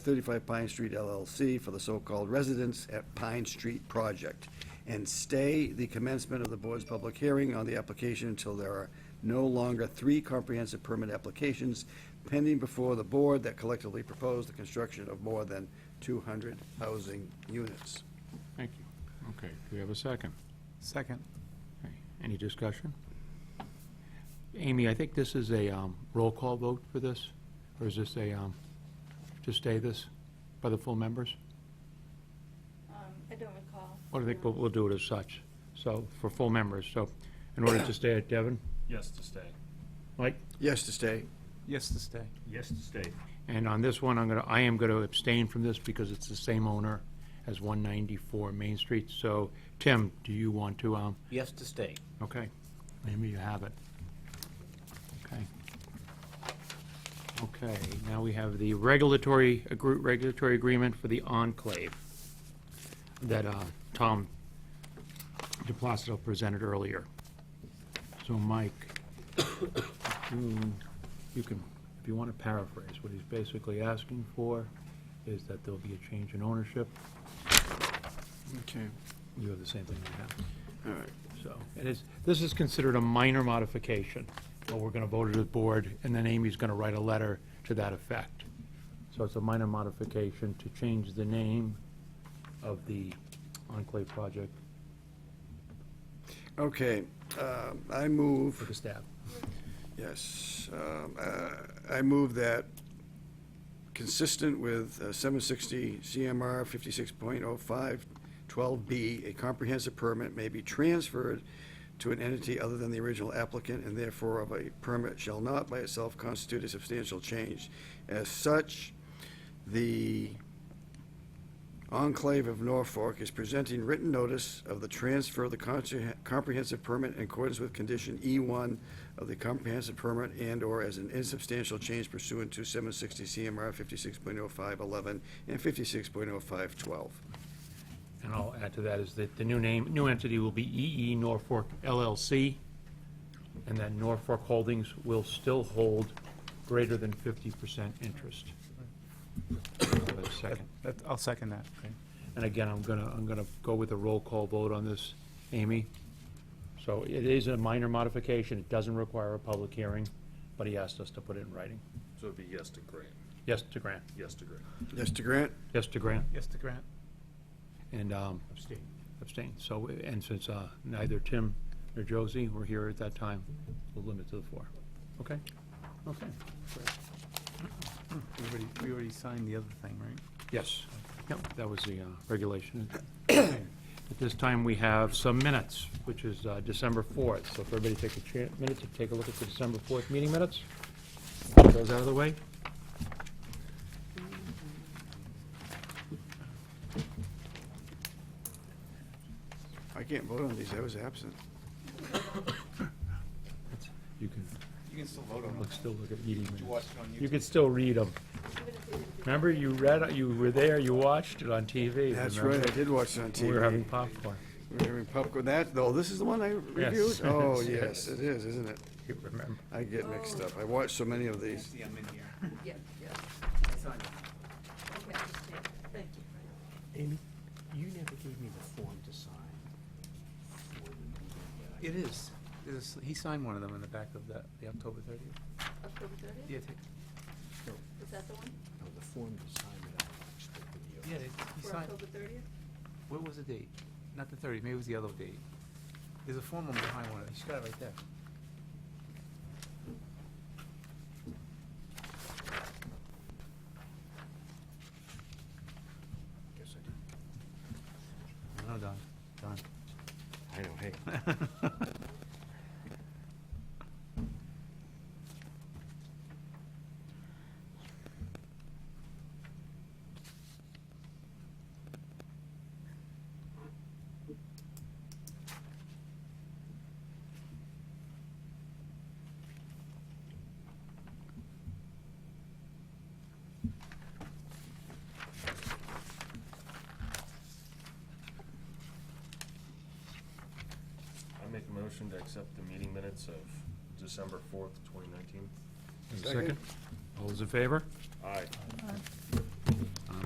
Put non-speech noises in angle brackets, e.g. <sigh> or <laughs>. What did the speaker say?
35 Pine Street LLC for the so-called Residence at Pine Street Project, and stay the commencement of the board's public hearing on the application until there are no longer three comprehensive permit applications pending before the board that collectively propose the construction of more than 200 housing units. Thank you. Okay, do we have a second? Second. Okay, Any discussion? Amy, I think this is a um, roll call vote for this, or is this a, um, to stay this by the full members? Um, I don't recall. Well, I think we'll- we'll do it as such, so, for full members, so, in order to stay it, Devin, Yes to stay. Mike? Yes to stay. Yes to stay. Yes to stay. And on this one, I'm gonna, I am gonna abstain from this because it's the same owner as 194 Main Street, so, Tim, do you want to, um, Yes to stay. Okay, maybe you have it. Okay. Okay, now we have the regulatory, agr- regulatory agreement for the enclave that uh, Tom DePlacido presented earlier. So Mike, you Mm, you can, if you want to paraphrase, what he's basically asking for is that there'll be a change in ownership. Okay. You have the same thing we have. All right. So, it is, this is considered a minor modification, but we're gonna vote it at board, and then Amy's gonna write a letter to that effect. So it's a minor modification to change the name of the Enclave project Okay, um, I move. for the staff. Yes, um, uh, I move that, consistent with uh, 760 CMR 56.05 12B, a comprehensive permit may be transferred to an entity other than the original applicant, and therefore of a permit shall not by itself constitute a substantial change. As such, the Enclave of Norfolk is presenting written notice of the transfer of the conche- comprehensive permit in accordance with condition E1 of the comprehensive permit and/or as an insubstantial change pursuant to 760 CMR 56.0511 and 56.0512. And I'll add to that is that the new name, new entity will be EE Norfolk LLC, and that Norfolk Holdings will still hold greater than fifty percent interest. Have a Second. That, I'll second that. And again, I'm gonna, I'm gonna go with a roll call vote on this, Amy. So it is a minor modification, it doesn't require a public hearing, but he asked us to put it in writing. So it'd be yes to grant, Yes to grant, yes to grant. Yes to grant? yes to grant, Yes to grant. and um, Abstain. abstain. So, and since uh, neither Tim nor Josie were here at that time, we'll limit to the four. Okay? Okay. We already, we already signed the other thing, right? Yes, yep, that was the uh, regulation. Okay. At this time, we have some minutes, which is uh, December 4th. So if everybody take a cha- minute to take a look at the December 4th meeting minutes, get those out of the way. I can't vote on these, I was absent. You can You can still vote look- still look at meeting minutes. it on You can still read them. Remember, you read, you were there, you watched it on TV. That's right, remember? I did watch it on TV. We were having popcorn. We were having popcorn. That, though, this is the one I reviewed? Oh, yes, it is, isn't it? You remember. I get mixed up. I watched so many of these. See, I'm in here. Yeah, yeah, okay, I understand. Thank you. Amy, you never gave me the form to sign. for the meeting that I- It is. It is- He signed one of them in the back of that, the October thirtieth. October thirtieth, Yeah, take- No, is that the one, no, the form to sign that I expected you. yeah, they- he for signed, October thirtieth? what was the date? Not the thirtieth, maybe it was the other date. There's a form on behind one of them. She's got it right there. Guess I didn't. No, Don, Don. I know, hey. <laughs> <laughs> I make a motion to accept the meeting minutes of December fourth, twenty nineteen. Is there a Second. All those in favor? Aye.